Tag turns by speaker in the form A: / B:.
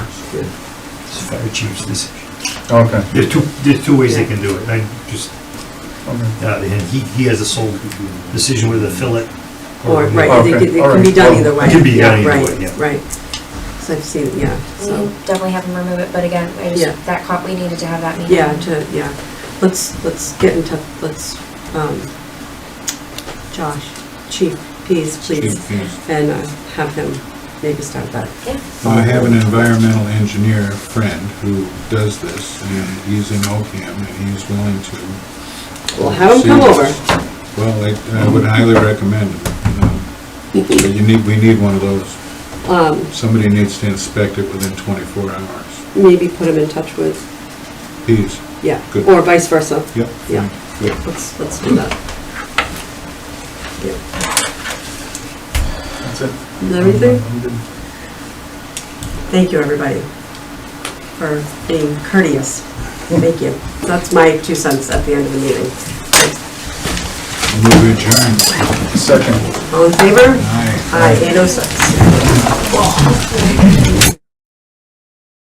A: It's the fire chief's decision.
B: Okay,
A: There's two, there's two ways they can do it, I just,
B: okay.
A: uh, and he, he has a sole decision whether to fill it
C: Or,
A: or.
C: right, they could- it
B: Okay, all
C: can be
B: right,
C: done
B: well,
C: either
B: it
C: way.
A: can be done either
C: right,
A: way, yeah.
C: Right, so I've seen, yeah,
D: We
C: so,
D: can definitely have them remove it, but again, I
C: Mm-hmm. Yeah.
D: just, that cop, we needed to have that meeting.
C: yeah, to, yeah, let's, let's get in touch, let's, um, Josh, Chief Pease, please, and uh, have him maybe start that.
D: Yeah.
E: Well, I
C: uh,
E: have an environmental engineer friend who does this, and he's in Oakham, and he's willing to.
C: Well, have him come over.
E: oversee this. Well, I- I would highly recommend him. um, But you need, we need one of those.
C: Um,
E: Somebody needs to inspect it within 24 hours.
C: maybe put him in touch with,
E: Please.
C: yeah,
E: Good.
C: or vice versa.
E: Yep.
C: Yeah.
E: Good.
C: Let's, let's do that. Yeah.
B: That's it.
C: Is that everything?
B: I'm good.
C: Thank you, everybody, for being courteous. Thank you. That's my two cents at the end of the meeting.
E: Move adjourned.
B: Second.
C: All in favor?
E: Aye.
C: Aye, 806.